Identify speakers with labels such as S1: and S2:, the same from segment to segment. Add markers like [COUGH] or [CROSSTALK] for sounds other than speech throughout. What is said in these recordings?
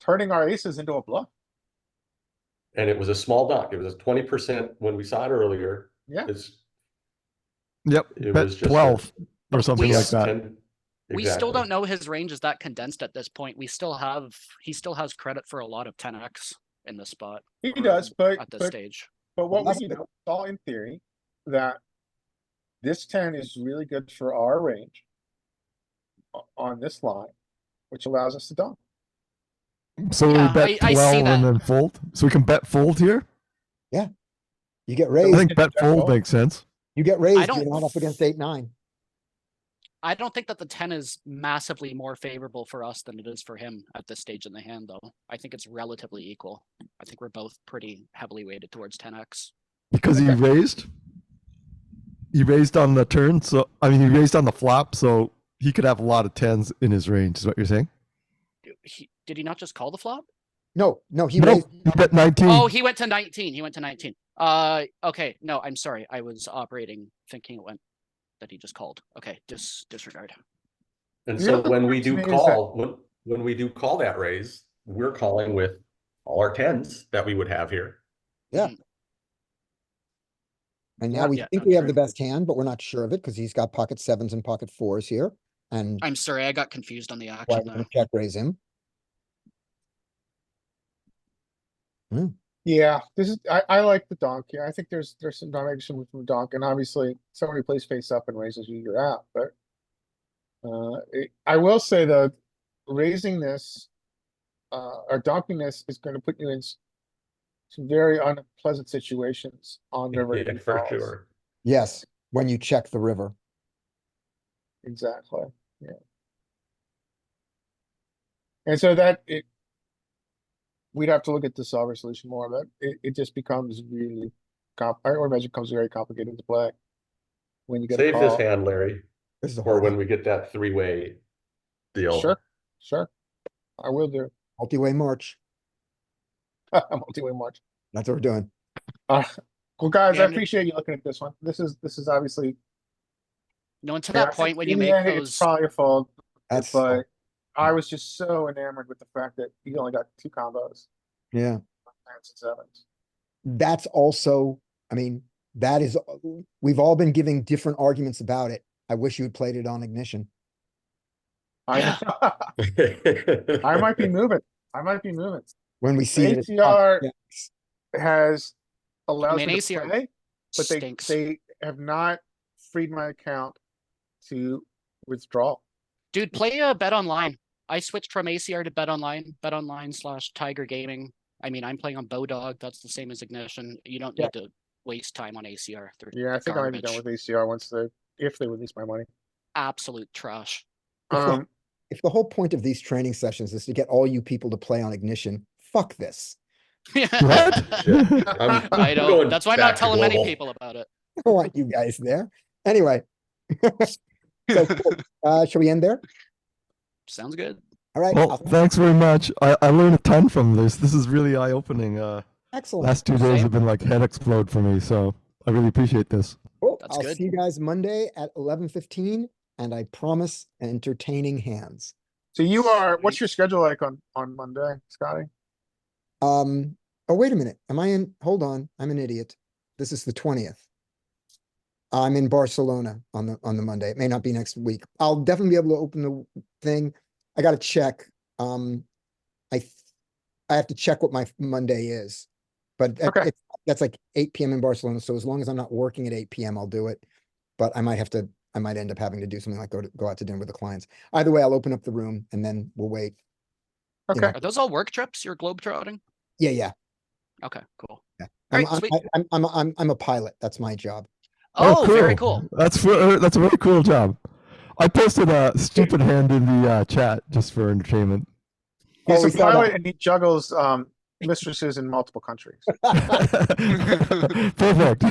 S1: turning our aces into a bluff.
S2: And it was a small dock. It was twenty percent when we saw it earlier.
S1: Yeah.
S2: It's,
S3: Yep.
S2: It
S3: bet
S2: was just a-
S3: 12 or something
S2: yeah,
S3: like that.
S2: 10
S4: We still
S2: exactly.
S4: don't know his range is that condensed at this point. We still have, he still has credit for a lot of ten X in this spot
S1: He does, but,
S4: at this
S1: but,
S4: stage.
S1: but what
S5: That's
S1: we
S5: the-
S1: know, it's all in theory, that this ten is really good for our range o- on this line, which allows us to dunk.
S3: So
S4: Yeah,
S3: we bet
S4: I- I see
S3: 12 and
S4: that.
S3: then fold. So we can bet fold here.
S5: You get
S3: I
S5: raised,
S3: think bet fold
S1: fold.
S3: makes sense.
S5: you get raised,
S4: don't
S5: you're not up against eight, nine.
S4: I don't think that the ten is massively more favorable for us than it is for him at this stage in the hand, though. I think it's relatively equal. I think we're both pretty heavily weighted towards ten X.
S3: Because he raised. He raised on the turn, so I mean he raised on the flop, so he could have a lot of tens in his range, is what you're saying?
S4: He, did he not just call the flop?
S5: No, no, he
S3: no,
S5: raised,
S3: he bet nineteen. [LAUGHS]
S4: Oh, he went to nineteen. He went to nineteen. Uh, okay, no, I'm sorry. I was operating thinking it went, that he just called. Okay, dis- disregard.
S2: And
S1: The
S2: so
S1: other
S2: when we
S1: question
S2: do
S1: is that-
S2: call, when, when we do call that raise, we're calling with all our tens that we would have here.
S5: and now we
S4: Yeah,
S5: think
S4: no,
S5: we have
S4: true.
S5: the best hand, but we're not sure of it because he's got pocket sevens and pocket fours here. And
S4: I'm sorry, I got confused on the
S5: why
S4: action
S5: don't
S4: there.
S5: we check raise him?
S1: Yeah, this is, I, I like the donk here. I think there's, there's some direction from donk and obviously somebody plays face up and raises you, you're out, but. Uh, it- I will say though, raising this, uh, or donking this is gonna put you in. s- Some very unpleasant situations on the river.
S2: [LAUGHS] Yeah,
S1: deep
S2: For
S1: calls.
S2: sure.
S5: Yes, when you check the river.
S1: Exactly, yeah. And so that it. We'd have to look at the solver solution more, but it, it just becomes really comp, I would imagine it becomes very complicated to play. When you get a
S2: Save this
S1: call,
S2: hand, Larry,
S5: This is a
S2: or
S5: hard
S2: when
S5: hand.
S2: we get that three-way deal. [LAUGHS]
S1: sure, sure, I will do, [LAUGHS]
S5: multi-way march.
S1: multi-way march.
S5: That's what we're doing.
S1: Uh, well, guys, I
S4: And-
S1: appreciate you looking at this one, this is, this is obviously.
S4: No, until
S1: Yeah,
S4: that point when you
S1: in the
S4: make
S1: end, It's
S4: those,
S1: probably your fault,
S5: That's,
S1: it's like, I was just so enamored with the fact that you only got two combos,
S5: yeah,
S1: nines and sevens.
S5: that's also, I mean, that is, we've all been giving different arguments about it. I wish you had played it on ignition.
S1: I, [LAUGHS] I might be moving. I might be moving.
S5: When we [LAUGHS] see. it as-
S1: ACR
S5: Yeah.
S1: Has allowed
S4: mean,
S1: me to
S4: ACR
S1: play, but they,
S4: stinks.
S1: they have not freed my account to withdraw.
S4: Dude, play a bet online. I switched from ACR to bet online, bet online slash Tiger Gaming. I mean, I'm playing on Bowdog. That's the same as Ignition. You don't
S1: Yeah.
S4: need to waste time on ACR. They're
S1: Yeah, I think I might be done with
S4: Garbage.
S1: ACR once they, if they release my
S5: [LAUGHS]
S1: money.
S4: absolute trash.
S5: It's like-
S1: Um,
S5: If the whole point of these training sessions is to get all you people to play on ignition, fuck this.
S3: What?
S4: [LAUGHS] I
S2: [LAUGHS]
S1: [LAUGHS]
S2: I'm- I'm
S4: don't.
S2: going
S4: That's why I'm
S2: back
S4: not
S2: to
S4: telling many
S2: global.
S4: people about it.
S5: I [LAUGHS] don't want you guys there. Anyway. [LAUGHS] So, cool. uh, shall we end there?
S4: Sounds good.
S5: All right.
S3: well,
S5: I'll-
S3: thanks very much. I, I learned a ton from this. This is really eye opening. Uh
S5: Excellent.
S3: last two days
S4: Same.
S3: have been like head explode for me, so I really appreciate this.
S5: Cool.
S4: That's
S5: I'll
S4: good.
S5: see you guys Monday at eleven fifteen and I promise entertaining hands.
S1: so you are, what's your schedule like on, on Monday, Scotty?
S5: Um, oh, wait a minute. Am I in? Hold on. I'm an idiot. This is the twentieth. I'm in Barcelona on the, on the Monday. It may not be next week. I'll definitely be able to open the w- thing. I gotta check. Um, I, th- I have to check what my f- Monday is. But that-
S1: Okay.
S5: it's- that's like eight PM in Barcelona. So as long as I'm not working at eight PM, I'll do it. But I might have to, I might end up having to do something like go to, go out to dinner with the clients. Either way, I'll open up the room and then we'll wait. You know,
S1: Okay,
S4: Are those all work trips? You're globe trotting?
S5: Yeah, yeah.
S4: Okay, cool.
S5: I'm,
S4: Alright,
S5: I'm,
S4: sweet.
S5: I- I'm, I'm, I'm, I'm a pilot. That's my job.
S4: Oh, very cool.
S3: That's for, that's a really cool job. I posted a
S4: [LAUGHS]
S3: stupid hand in the uh, chat just for entertainment. [LAUGHS]
S5: Oh, we
S1: he's a
S5: saw
S1: pilot
S5: that.
S1: and he juggles, um, mistresses in multiple
S5: [LAUGHS]
S1: countries. [LAUGHS]
S3: Perfect.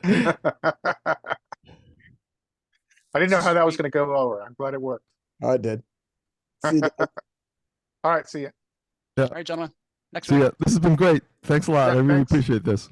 S3: [LAUGHS]
S1: I didn't know how that was gonna go over. I'm glad it worked.
S5: I did.
S4: [LAUGHS]
S5: See you guys.
S1: Alright, see ya.
S4: All right, gentlemen. Next
S3: so
S4: week.
S3: yeah, this has been great. Thanks a lot.
S1: Yeah,
S3: I really
S1: thanks.
S3: appreciate this.